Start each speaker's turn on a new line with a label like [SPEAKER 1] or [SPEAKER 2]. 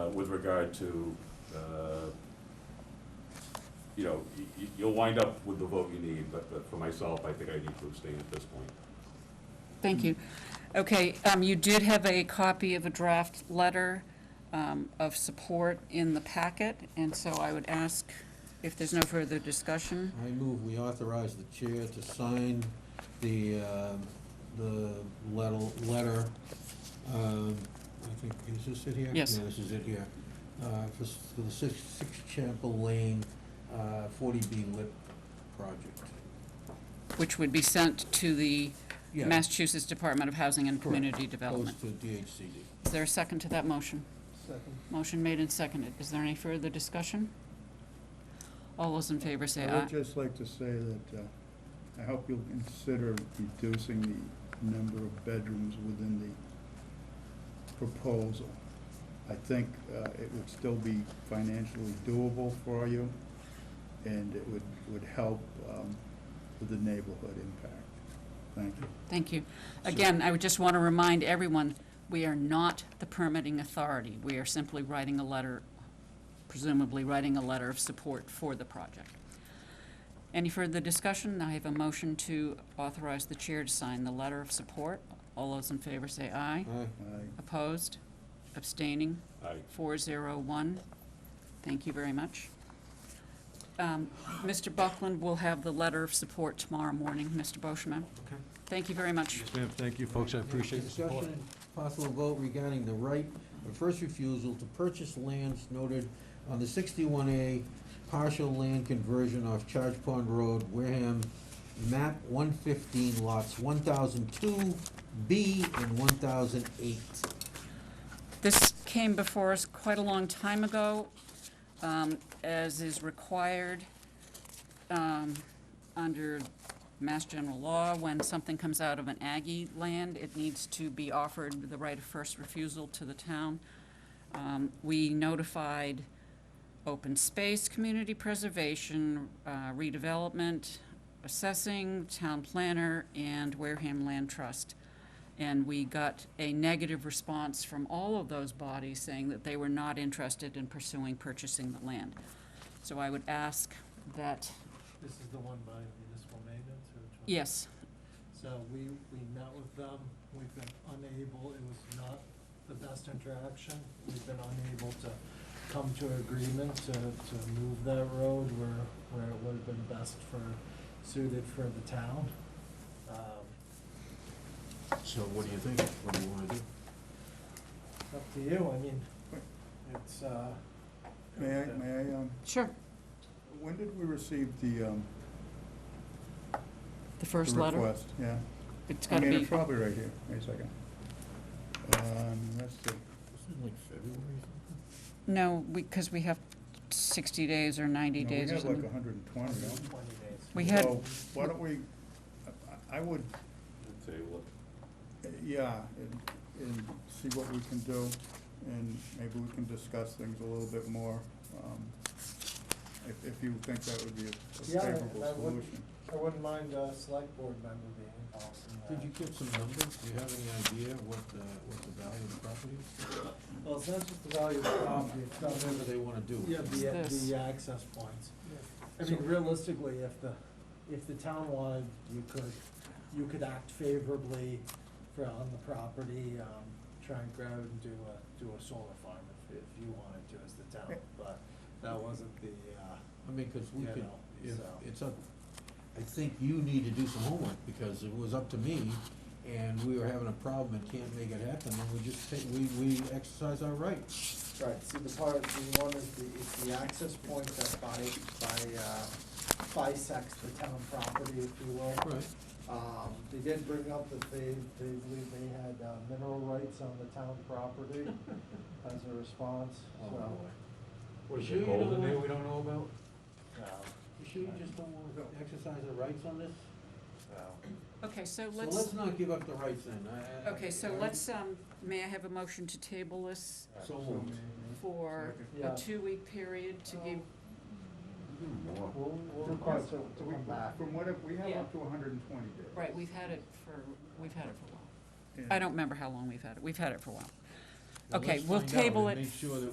[SPEAKER 1] uh, regard to, uh, you know, y- y- you'll wind up with the vote you need, but but for myself, I think I need to abstain at this point.
[SPEAKER 2] Thank you. Okay, um, you did have a copy of a draft letter um, of support in the packet, and so I would ask if there's no further discussion.
[SPEAKER 3] I move we authorize the chair to sign the, uh, the letter, letter, um, I think, is this it here?
[SPEAKER 2] Yes.
[SPEAKER 3] Yeah, this is it here, uh, for, s- for the Six, Six Chapel Lane, uh, forty B lit project.
[SPEAKER 2] Which would be sent to the
[SPEAKER 3] Yeah,
[SPEAKER 2] Massachusetts Department of Housing and
[SPEAKER 3] correct.
[SPEAKER 2] Community Development.
[SPEAKER 3] Goes to DHCD.
[SPEAKER 2] Is there a second to that motion? Motion made and seconded. Is there any further discussion? All those in favor say
[SPEAKER 4] I would
[SPEAKER 2] aye.
[SPEAKER 4] just like to say that uh, I hope you'll consider reducing the number of bedrooms within the proposal. I think uh, it would still be financially doable for you, and it would, would help um, with the neighborhood impact. Thank you.
[SPEAKER 2] Thank you. Again, I would just want to remind everyone, we are not the permitting authority. We are simply writing a letter, presumably writing a letter of support for the project. Any further discussion? I have a motion to authorize the chair to sign the letter of support. All those in favor say aye.
[SPEAKER 3] Aye.
[SPEAKER 4] Aye.
[SPEAKER 2] Opposed? Abstaining?
[SPEAKER 1] I,
[SPEAKER 2] Four zero one. Thank you very much. Um, Mr. Buckland will have the letter of support tomorrow morning, Mr. Boschman.
[SPEAKER 3] Okay.
[SPEAKER 2] Thank you very much.
[SPEAKER 5] Yes, ma'am, thank you, folks, I appreciate the support.
[SPEAKER 3] Discussion and possible vote regarding the right of first refusal to purchase lands noted on the sixty-one A partial land conversion off Charge Pond Road, Wareham, map one fifteen lots one thousand two B and one thousand eight.
[SPEAKER 2] This came before us quite a long time ago, um, as is required um, under Mass General Law. When something comes out of an Aggie land, it needs to be offered the right of first refusal to the town. Um, We notified Open Space, Community Preservation, uh, Redevelopment, Assessing, Town Planner, and Wareham Land Trust. And we got a negative response from all of those bodies saying that they were not interested in pursuing purchasing the land. So I would ask that,
[SPEAKER 6] This is the one by municipal maintenance or which one?
[SPEAKER 2] yes,
[SPEAKER 6] So we, we met with them, we've been unable, it was not the best interaction. We've been unable to come to agreement to, to move that road where, where it would have been best for, suited for the town. Um,
[SPEAKER 3] So what do you think? What do you wanna do?
[SPEAKER 6] Up to you, I mean, it's, uh.
[SPEAKER 4] May I, may I, um,
[SPEAKER 2] sure,
[SPEAKER 4] when did we receive the um,
[SPEAKER 2] the
[SPEAKER 4] the
[SPEAKER 2] first letter.
[SPEAKER 4] request? Yeah.
[SPEAKER 2] It's
[SPEAKER 4] I
[SPEAKER 2] gotta
[SPEAKER 4] mean,
[SPEAKER 2] be,
[SPEAKER 4] it's probably right here. Wait a second. Um, Let's see.
[SPEAKER 3] Wasn't it like February or
[SPEAKER 2] no, because we have sixty days or ninety
[SPEAKER 4] No,
[SPEAKER 2] days or
[SPEAKER 4] We have like
[SPEAKER 2] something.
[SPEAKER 4] hundred and twenty,
[SPEAKER 6] Twenty
[SPEAKER 4] don't we?
[SPEAKER 6] days.
[SPEAKER 2] We had-
[SPEAKER 4] So why don't we, I- I would,
[SPEAKER 1] I'd say, well,
[SPEAKER 4] uh, yeah, and, and see what we can do, and maybe we can discuss things a little bit more, um, if, if you think that would be a-
[SPEAKER 6] Yeah,
[SPEAKER 4] a favorable
[SPEAKER 6] that would-
[SPEAKER 4] solution.
[SPEAKER 6] I wouldn't mind a select board member being involved in
[SPEAKER 3] Did
[SPEAKER 6] that.
[SPEAKER 3] you get some numbers? Do you have any idea what the, what the value of the property is?
[SPEAKER 6] Well, it's not just the value of the property, it's not
[SPEAKER 3] Whatever they wanna do.
[SPEAKER 6] Um, Yeah, the,
[SPEAKER 2] This.
[SPEAKER 6] the access points. I mean, realistically, if the, if the town wanted, you could, you could act favorably for, on the property, um, try and grab and do a, do a solar farm if, if you wanted to as the town, but that wasn't the, uh,
[SPEAKER 3] I mean, because we
[SPEAKER 6] You
[SPEAKER 3] could,
[SPEAKER 6] know,
[SPEAKER 3] if,
[SPEAKER 6] so.
[SPEAKER 3] it's up, I think you need to do some homework, because it was up to me, and we were having a problem and can't make it happen, and we just take, we, we exercise our right.
[SPEAKER 6] Right, see, the part, the one is the, it's the access point that by, by, uh, bisects the town property, if you will.
[SPEAKER 3] Right.
[SPEAKER 6] Um, they did bring up that they, they believe they had uh, mineral rights on the town property
[SPEAKER 3] Oh,
[SPEAKER 6] as a response, so.
[SPEAKER 1] What is it, gold in there we
[SPEAKER 3] don't know about?
[SPEAKER 6] no,
[SPEAKER 3] You sure you just don't wanna exercise our rights on this?
[SPEAKER 6] no.
[SPEAKER 2] Okay, so
[SPEAKER 3] So
[SPEAKER 2] let's,
[SPEAKER 3] let's not give up the rights then, I, I.
[SPEAKER 2] okay, so
[SPEAKER 3] I-
[SPEAKER 2] let's, um, may I have a motion to table this
[SPEAKER 3] So moved.
[SPEAKER 2] for a
[SPEAKER 6] Yeah.
[SPEAKER 2] two-week period to give,
[SPEAKER 1] more.
[SPEAKER 6] We'll, we'll
[SPEAKER 4] So
[SPEAKER 6] request
[SPEAKER 4] so
[SPEAKER 6] it to
[SPEAKER 4] we-
[SPEAKER 6] come back.
[SPEAKER 4] From what, if- we have
[SPEAKER 2] Yeah.
[SPEAKER 4] up to hundred and twenty days.
[SPEAKER 2] right, we've had it for, we've had it for a while.
[SPEAKER 4] And-
[SPEAKER 2] I don't remember how long we've had it. We've had it for a while.
[SPEAKER 3] Now,
[SPEAKER 2] Okay,
[SPEAKER 3] let's
[SPEAKER 2] we'll
[SPEAKER 3] find out
[SPEAKER 2] table
[SPEAKER 3] and
[SPEAKER 2] it
[SPEAKER 3] Make sure that